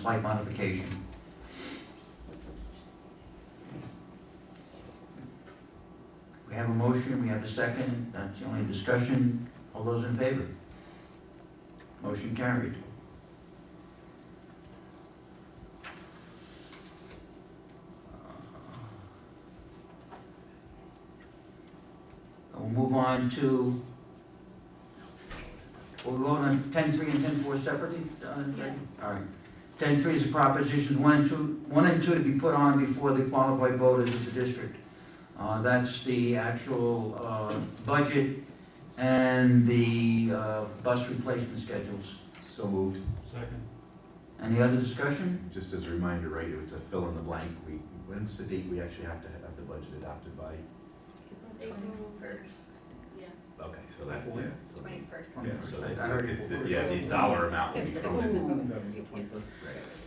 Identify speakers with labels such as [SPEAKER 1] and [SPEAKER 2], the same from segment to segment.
[SPEAKER 1] slight modification. We have a motion, we have a second, that's the only discussion. All those in favor? Motion carried. Uh, We'll move on to, we'll vote on ten-three and ten-four separately? uh, Greg?
[SPEAKER 2] Yes.
[SPEAKER 1] All right. Ten three is the propositions one and two, one and two to be put on before the qualified voters of the district. Uh, that's the actual, uh, budget and the, uh, bus replacement schedules.
[SPEAKER 3] So moved.
[SPEAKER 4] Second.
[SPEAKER 1] Any other discussion?
[SPEAKER 3] Just as a reminder, right, it's a fill in the blank. We, when is the date we actually have to have the budget adopted by?
[SPEAKER 2] April first. Yeah.
[SPEAKER 3] Okay, so that, yeah, so.
[SPEAKER 2] Twenty-first.
[SPEAKER 3] Yeah, so that,
[SPEAKER 1] I heard it
[SPEAKER 3] the- the-
[SPEAKER 1] before.
[SPEAKER 3] yeah, the dollar amount will be thrown in,
[SPEAKER 4] twenty-first.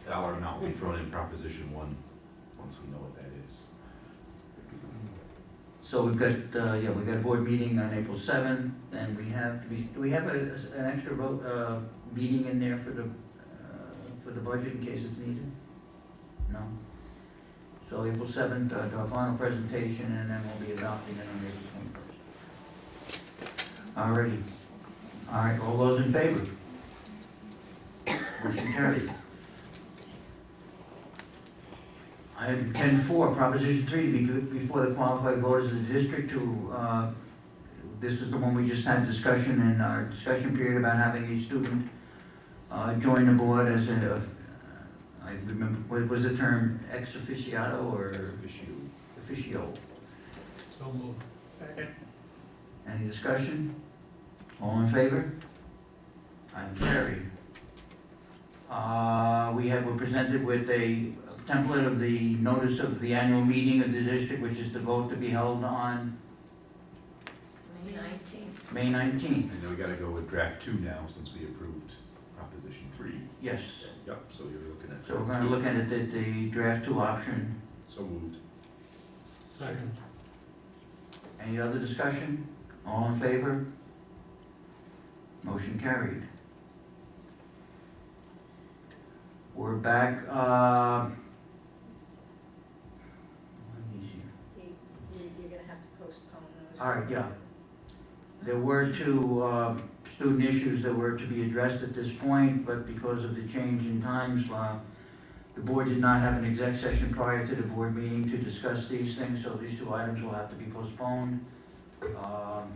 [SPEAKER 3] dollar amount will be thrown in proposition one, once we know what that is.
[SPEAKER 1] So we've got, uh, yeah, we've got a board meeting on April seventh, and we have, do we have a, an extra vote, uh, meeting in there for the, uh, for the budget in case it's needed? No? So April seventh, uh, to our final presentation, and then we'll be adopting it on April twenty-first. Alrighty. Alright, all those in favor? Motion carried. Item ten four, proposition three, to be put before the qualified voters of the district to, uh, this is the one we just had discussion in our discussion period about having a student, uh, join the board as a, uh, I remember, what was the term, ex officiato
[SPEAKER 3] Ex
[SPEAKER 1] or
[SPEAKER 3] officio.
[SPEAKER 1] officio?
[SPEAKER 4] So moved. Second.
[SPEAKER 1] Any discussion? All in favor? I'm carried. Uh, we have, we're presented with a template of the notice of the annual meeting of the district, which is the vote to be held on
[SPEAKER 2] Nineteenth.
[SPEAKER 1] May nineteenth.
[SPEAKER 3] And then we gotta go with draft two now, since we approved proposition three.
[SPEAKER 1] Yes,
[SPEAKER 3] Yep, so you're looking at.
[SPEAKER 1] so we're gonna look at it, at the draft two option.
[SPEAKER 3] So moved.
[SPEAKER 4] Second.
[SPEAKER 1] Any other discussion? All in favor? Motion carried. We're back, uh. let me see.
[SPEAKER 2] You, you- you're gonna have to postpone those.
[SPEAKER 1] All right, yeah. There were two uh, student issues that were to be addressed at this point, but because of the change in times, uh, the board did not have an exec session prior to the board meeting to discuss these things, so these two items will have to be postponed um,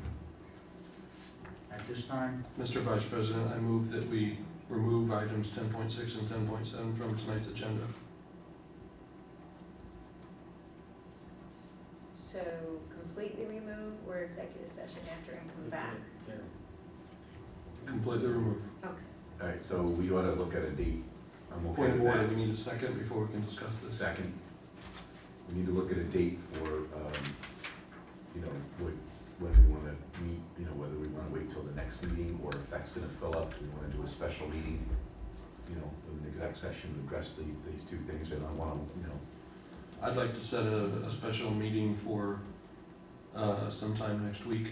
[SPEAKER 1] at this time.
[SPEAKER 4] Mr. Vice President, I move that we remove items ten point six and ten point seven from tonight's agenda.
[SPEAKER 2] So completely remove or executive session after and come back?
[SPEAKER 4] Completely removed.
[SPEAKER 3] Alright, so we ought to look at a date. I'm okay
[SPEAKER 4] Point of
[SPEAKER 3] with that.
[SPEAKER 4] order, we need a second before we can discuss
[SPEAKER 3] The
[SPEAKER 4] this.
[SPEAKER 3] second, we need to look at a date for, um, you know, what, whether we wanna meet, you know, whether we wanna wait till the next meeting, or if that's gonna fill up, do we wanna do a special meeting? You know, with an exec session to address these, these two things, and I wanna, you know,
[SPEAKER 4] I'd like to set a, a special meeting for, uh, sometime next week.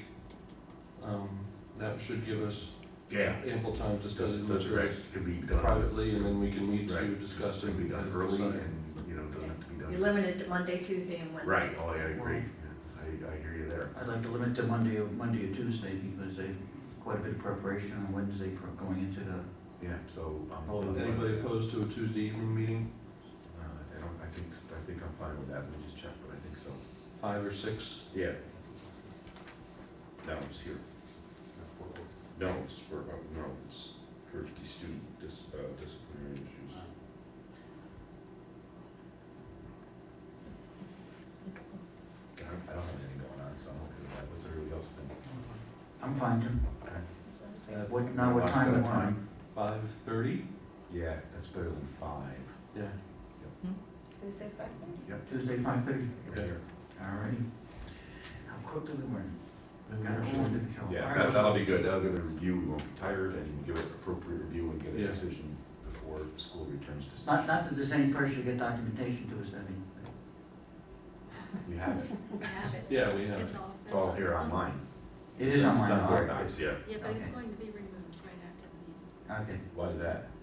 [SPEAKER 4] Um, that should give us
[SPEAKER 3] yeah,
[SPEAKER 4] ample time to
[SPEAKER 3] does,
[SPEAKER 4] study the
[SPEAKER 3] does,
[SPEAKER 4] materials
[SPEAKER 3] right, can be done,
[SPEAKER 4] privately, and then we can meet to
[SPEAKER 3] Right.
[SPEAKER 4] discuss
[SPEAKER 3] can be
[SPEAKER 4] and
[SPEAKER 3] done
[SPEAKER 4] and
[SPEAKER 3] early,
[SPEAKER 4] decide.
[SPEAKER 3] and, you know, doesn't have to be
[SPEAKER 2] You're
[SPEAKER 3] done.
[SPEAKER 2] limited to Monday, Tuesday, and Wednesday.
[SPEAKER 3] Right, oh, yeah, I agree, Yeah, I, I hear you there.
[SPEAKER 1] I'd like to limit to Monday or, Monday or Tuesday because they, quite a bit of preparation on Wednesday for going into the,
[SPEAKER 3] Yeah, so, um.
[SPEAKER 1] Hold on.
[SPEAKER 4] Oh, Anybody opposed to a Tuesday evening meeting,
[SPEAKER 3] Uh, I don't, I think, s- I think I'm fine with that, let me just check, but I think so.
[SPEAKER 4] five or six?
[SPEAKER 3] Yeah. No, it's here. No, it's for, uh, no, it's for the student dis, uh, disciplinary issues. I don't, I don't have anything going on, so I'm okay with that, what's everybody else think?
[SPEAKER 1] I'm fine to,
[SPEAKER 4] Uh,
[SPEAKER 1] what, now what time we
[SPEAKER 3] Set a
[SPEAKER 1] want?
[SPEAKER 3] time?
[SPEAKER 4] Five thirty?
[SPEAKER 3] Yeah, that's better than five.
[SPEAKER 4] Yeah.
[SPEAKER 2] Tuesday, Friday?
[SPEAKER 1] Tuesday, five thirty,
[SPEAKER 3] Right here.
[SPEAKER 1] all righty. How quickly we went. Got it all under
[SPEAKER 4] Motion.
[SPEAKER 1] control. All
[SPEAKER 3] Yeah, that,
[SPEAKER 1] right.
[SPEAKER 3] that'll be good, that'll get a review, we won't be tired, and give it appropriate review and get
[SPEAKER 4] Yeah.
[SPEAKER 3] a decision before school returns to
[SPEAKER 1] Not,
[SPEAKER 3] session.
[SPEAKER 1] not that there's any pressure to get documentation to us, I mean.
[SPEAKER 3] We have it,
[SPEAKER 5] have it.
[SPEAKER 4] Yeah, we have.
[SPEAKER 5] It's
[SPEAKER 4] it.
[SPEAKER 5] all set.
[SPEAKER 3] it's all here online.
[SPEAKER 1] It is online,
[SPEAKER 3] It's on
[SPEAKER 1] all
[SPEAKER 3] Board
[SPEAKER 1] right.
[SPEAKER 3] Docs, yeah.
[SPEAKER 5] Yeah, but it's
[SPEAKER 1] Okay.
[SPEAKER 5] going to be removed right after the meeting.
[SPEAKER 1] Okay,
[SPEAKER 3] Why is that?